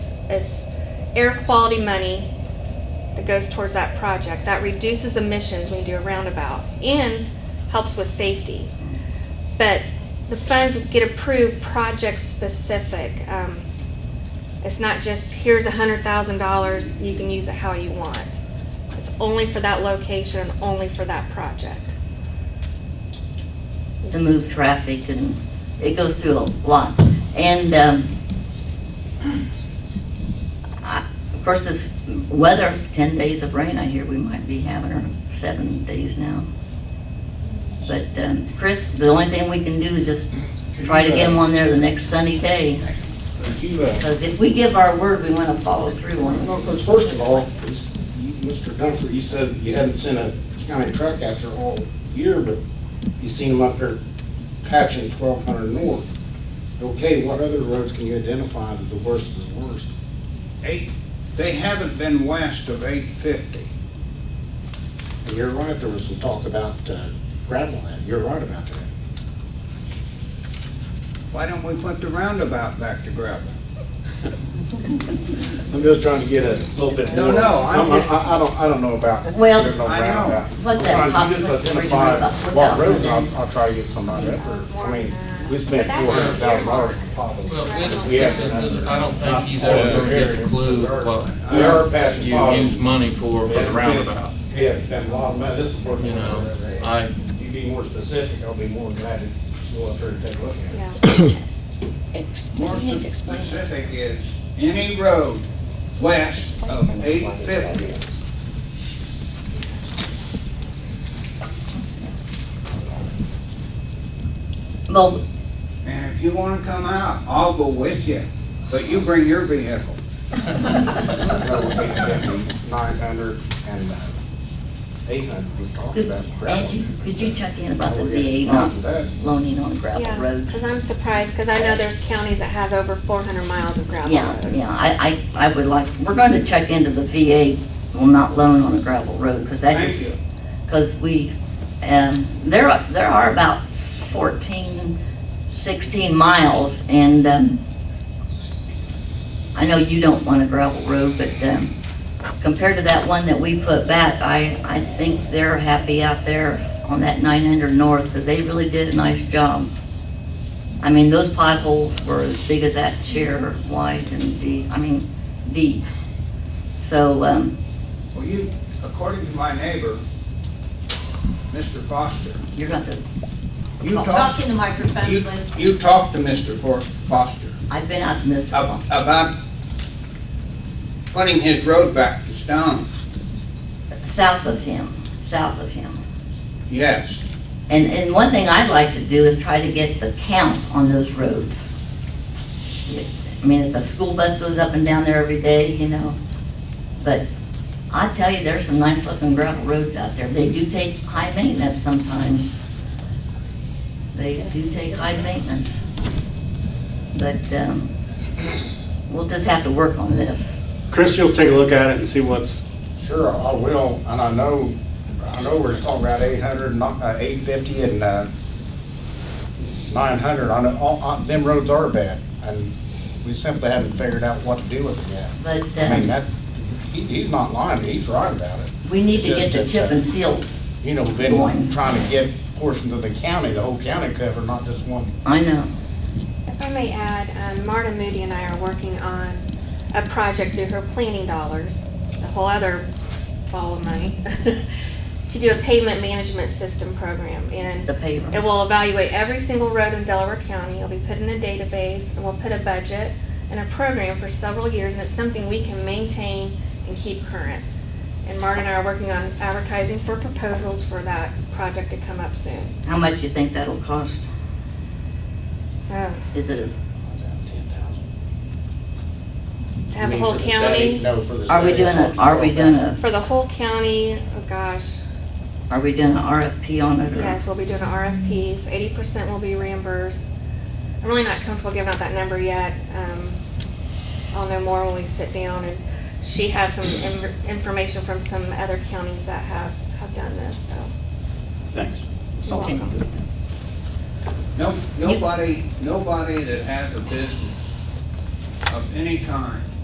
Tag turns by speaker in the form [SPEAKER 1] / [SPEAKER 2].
[SPEAKER 1] It's air quality money that goes towards that project. That reduces emissions when you do a roundabout and helps with safety. But the funds get approved project specific. Um, It's not just, here's a hundred thousand dollars, you can use it how you want. It's only for that location, only for that project.
[SPEAKER 2] to move traffic and it goes through a lot. And, um, I- of course, this weather, ten days of rain I hear we might be having, or seven days now. But, um, Chris, the only thing we can do is just try to get them on there the next sunny day.
[SPEAKER 3] Thank you. uh,
[SPEAKER 2] Because if we give our word, we want to follow through on it.
[SPEAKER 3] well, But first of all, it's- you- Mr. Dunford, you said you hadn't seen a county truck out there all year, but you seen them up there patching twelve hundred north. Okay, what other roads can you identify that the worst is the worst?
[SPEAKER 4] Eight, they haven't been west of eight fifty.
[SPEAKER 3] And you're right, there was some talk about uh, gravel land. You're right about that.
[SPEAKER 4] Why don't we put the roundabout back to gravel?
[SPEAKER 3] I'm just trying to get a little bit
[SPEAKER 4] No,
[SPEAKER 3] more-
[SPEAKER 4] no, I'm-
[SPEAKER 3] I'm- I, I don't, I don't know about.
[SPEAKER 2] Well,
[SPEAKER 3] there's no
[SPEAKER 4] I know.
[SPEAKER 3] roundabout.
[SPEAKER 2] What that
[SPEAKER 3] I'm trying to just
[SPEAKER 2] population
[SPEAKER 3] identify
[SPEAKER 2] rate of about
[SPEAKER 3] what roads
[SPEAKER 2] 4,000.
[SPEAKER 3] I'll, I'll try to get somebody up there. I mean, we spent four hundred thousand dollars on potholes.
[SPEAKER 5] Well, this,
[SPEAKER 3] We have to-
[SPEAKER 5] this, this- I don't think he's ever gonna get a clue what
[SPEAKER 3] We are patching
[SPEAKER 5] you
[SPEAKER 3] potholes.
[SPEAKER 5] use money for, for the roundabout,
[SPEAKER 3] Yeah, that's a lot of money, this is working.
[SPEAKER 5] you know? I,
[SPEAKER 3] If you be more specific, I'll be more than glad to go up there and take a look at it.
[SPEAKER 1] Yeah.
[SPEAKER 4] More specific is any road west of eight fifty.
[SPEAKER 2] Well,
[SPEAKER 4] And if you wanna come out, I'll go with you, but you bring your vehicle.
[SPEAKER 3] Nine hundred and eight hundred was talking
[SPEAKER 2] could,
[SPEAKER 3] about. gravel.
[SPEAKER 2] Angie, could you check in about the
[SPEAKER 3] Oh, yeah.
[SPEAKER 2] VA
[SPEAKER 3] Not
[SPEAKER 2] not
[SPEAKER 3] for that.
[SPEAKER 2] loaning on gravel
[SPEAKER 1] Yeah,
[SPEAKER 2] roads?
[SPEAKER 1] because I'm surprised, because I know there's counties that have over 400 miles of gravel
[SPEAKER 2] Yeah,
[SPEAKER 1] road.
[SPEAKER 2] yeah, I, I, I would like, we're going to check into the VA will not loan on a gravel road, because that
[SPEAKER 4] Thank
[SPEAKER 2] is,
[SPEAKER 4] you.
[SPEAKER 2] because we, um, there, are- there are about 14, 16 miles, and, um, I know you don't want a gravel road, but, um, compared to that one that we put back, I, I think they're happy out there on that 900 North, because they really did a nice job. I mean, those potholes were as big as that chair wide and deep, I mean, deep. So, um,
[SPEAKER 4] Well, you, according to my neighbor, Mr. Foster,
[SPEAKER 2] you're going to,
[SPEAKER 4] you
[SPEAKER 6] Talk
[SPEAKER 4] talked,
[SPEAKER 6] in the microphone,
[SPEAKER 4] you,
[SPEAKER 6] please.
[SPEAKER 4] you talked to Mr. For- Foster.
[SPEAKER 2] I've been out to Mr.
[SPEAKER 4] ab-
[SPEAKER 2] Fox.
[SPEAKER 4] about putting his road back to stone.
[SPEAKER 2] south of him, south of him.
[SPEAKER 4] Yes,
[SPEAKER 2] And, and one thing I'd like to do is try to get the count on those roads. I mean, if the school bus goes up and down there every day, you know, but I tell you, there's some nice looking gravel roads out there. They do take high maintenance sometimes. They do take high maintenance. But, um, we'll just have to work on this.
[SPEAKER 7] Chris, you'll take a look at it and see what's,
[SPEAKER 3] Sure, I will, and I know, I know we're talking about eight hundred, not, uh, eight fifty and, uh, nine hundred, I know, all, uh, them roads are bad, and we simply haven't figured out what to do with them yet.
[SPEAKER 2] But,
[SPEAKER 3] I mean,
[SPEAKER 2] um,
[SPEAKER 3] that, he, he's not lying, he's right about it.
[SPEAKER 2] we need to get the chip and seal.
[SPEAKER 3] You know, we've been trying to get portions of the county, the whole county covered, not just one.
[SPEAKER 2] I know.
[SPEAKER 1] If I may add, um, Marta Moody and I are working on a project through her planning dollars, it's a whole other ball of money, to do a pavement management system program. And
[SPEAKER 2] the paver.
[SPEAKER 1] It will evaluate every single road in Delaware County. It'll be put in a database, and we'll put a budget and a program for several years, and it's something we can maintain and keep current. And Marta and I are working on advertising for proposals for that project to come up soon.
[SPEAKER 2] How much you think that'll cost?
[SPEAKER 1] Oh,
[SPEAKER 2] Is it,
[SPEAKER 1] To have the whole county,
[SPEAKER 3] No, for the
[SPEAKER 2] are we
[SPEAKER 3] state.
[SPEAKER 2] doing a, are we doing a,
[SPEAKER 1] for the whole county, oh gosh,
[SPEAKER 2] are we doing an RFP on it? or-
[SPEAKER 1] yes, we'll be doing RFPs. Eighty percent will be reimbursed. I'm really not comfortable giving out that number yet. Um, I'll know more when we sit down, and she has some in- information from some other counties that have, have done this, so.
[SPEAKER 7] thanks.
[SPEAKER 1] you're
[SPEAKER 2] Okay.
[SPEAKER 1] welcome.
[SPEAKER 4] no, nobody, nobody that has a business of any kind